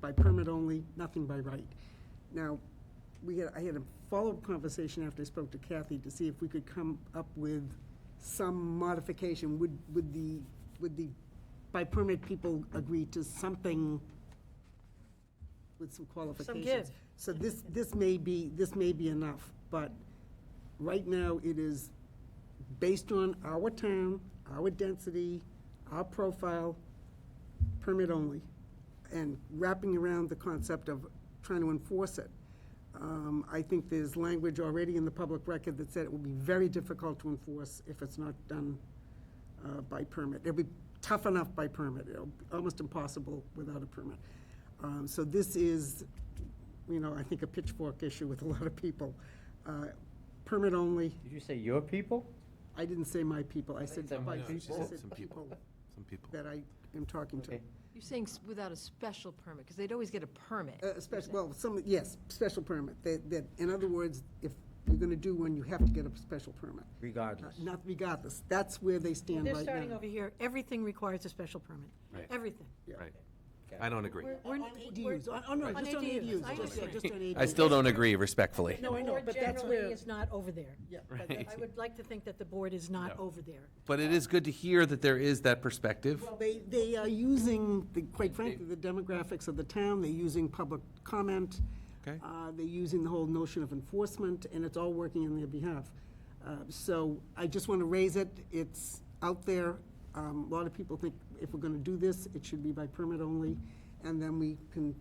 by permit only, nothing by right. Now, we had, I had a follow-up conversation after I spoke to Kathy to see if we could come up with some modification. Would, would the, would the, by permit people agree to something with some qualifications? give. So this, this may be, this may be enough, but right now it is based on our town, our density, our profile, permit only, and wrapping around the concept of trying to enforce it. Um, I think there's language already in the public record that said it will be very difficult to enforce if it's not done uh, by permit. It'll be tough enough by permit, it'll be almost impossible without a permit. Um, So this is, you know, I think a pitchfork issue with a lot of people. Uh, Permit only, Did you say your people? I didn't say my people, I said think some- by no, she people, I said said some people. people Some people. that I am talking to. Okay. You're saying s- without a special permit, because they'd always get a permit. Uh, Special, well, some, yes, special permit. That, that, in other words, if you're going to do one, you have to get a special permit. Regardless. Not regardless, that's where they stand They're right starting now. over here. Everything requires a special permit. Right. Everything. Right. I don't agree. We're- On ADUs, on, on, no, On just on ADUs, ADUs, I just, yeah, understand. just on ADUs. I still don't agree respectfully. No, I know, Board but that's generally where it's not over there. Yeah, but that- I would like to think that the board is not over there. But it is good to hear that there is that perspective. Well, They, they are using, the- quite frankly, the demographics of the town, they're using public comment. Okay. Uh, They're using the whole notion of enforcement, and it's all working in their behalf. Uh, So I just want to raise it, it's out there. Um, A lot of people think if we're going to do this, it should be by permit only, and then we can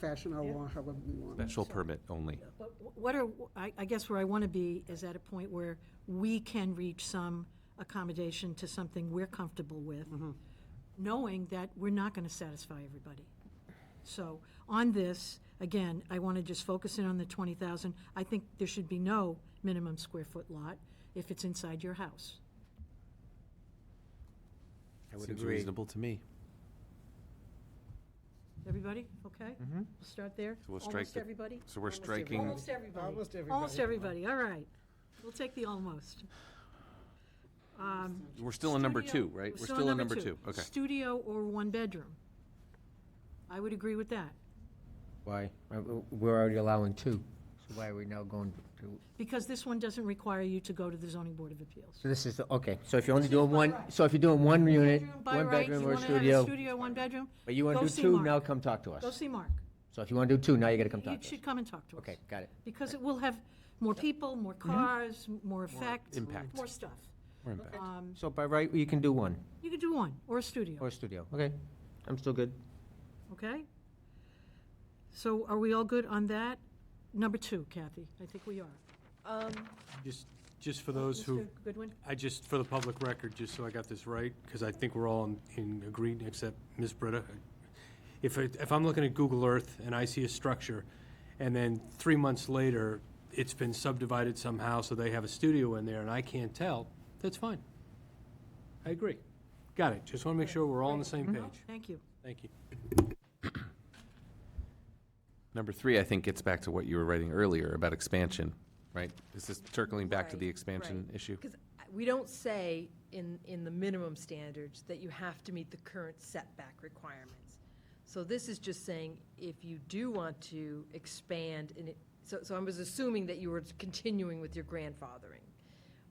fashion our law however we want. Special permit only. But wh- what are, I, I guess where I want to be is at a point where we can reach some accommodation to something we're comfortable with, knowing that we're not going to satisfy everybody. So on this, again, I want to just focus in on the 20,000. I think there should be no minimum square foot lot if it's inside your house. I would Seems agree. reasonable to me. Everybody, okay? We'll start there. So we'll strike Mm-hmm. Almost the- everybody? So we're striking, Almost everybody. Almost everybody. Almost everybody, all right. We'll take the almost. Um, we're still in number Studio- two, right? We're still in number two. Okay. Studio or one bedroom. I would agree with that, Why? Uh, w- We're already allowing two. So why are we now going to? because this one doesn't require you to go to the zoning board of appeals. So this is, the- okay, so if you're only doing one, so if you're doing one unit, Bedroom, by one right, you bedroom or want to have a studio, studio, one bedroom? but you want go to do see two, Mark. now come talk to Go us. see Mark. So if you want to do two, now you got to come You talk to us. should come and talk to us. Okay, Mm-hmm. got it. Because it will have more people, more cars, m- more effect. impact. More stuff. We're in back. Um, So by right, you can do one, You could do one, or a or studio, a studio, okay? I'm still good. okay? So are we all good on that? Number two, Kathy, I think we are. Um, Just, just for those who, Mr. Goodwin? I just, for the public record, just so I got this right, because I think we're all in- in agreed, except Ms. Britta. If, it- if I'm looking at Google Earth and I see a structure, and then three months later, it's been subdivided somehow, so they have a studio in there, and I can't tell, that's fine. I agree. Got it. Just want to make sure we're all on the same page. Thank you. Thank you. Number three, I think, gets back to what you were writing earlier about expansion, right? Is this circling back to the Right, expansion right. issue? Because we don't say in, in the minimum standards that you have to meet the current setback requirements. So this is just saying, if you do want to expand, and it, so, so I was assuming that you were continuing with your grandfathering.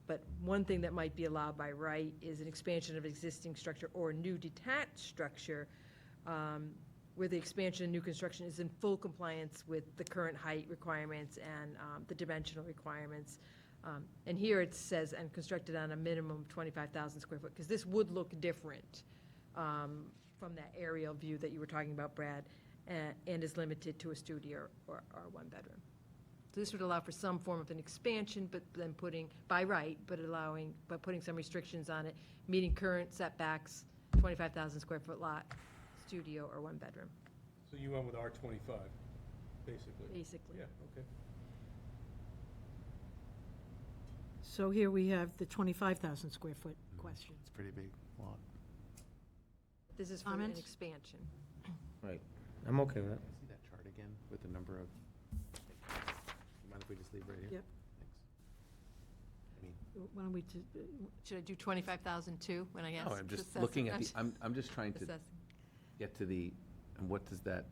But one thing that might be allowed by right is an expansion of existing structure or new detached structure, um, where the expansion and new construction is in full compliance with the current height requirements and um, the dimensional requirements. Um, And here it says, and constructed on a minimum of 25,000 square foot, because this would look different um, from that aerial view that you were talking about, Brad, a- and is limited to a studio or, or one bedroom. So this would allow for some form of an expansion, but then putting, by right, but allowing, but putting some restrictions on it, meeting current setbacks, 25,000 square foot lot, studio or one bedroom, So you went with R twenty-five, basically? basically. okay. So here we have the 25,000 square foot question. It's a pretty big lot. This is for an Comments? expansion. Right. I'm okay with that. Can I see that chart again with the number of? Mind if we just leave right here? Yep. Thanks. Why don't we, t- Should I do 25,000 too, when I Oh, No, I'm just looking at the, I'm, I'm just trying to get to the, and what does that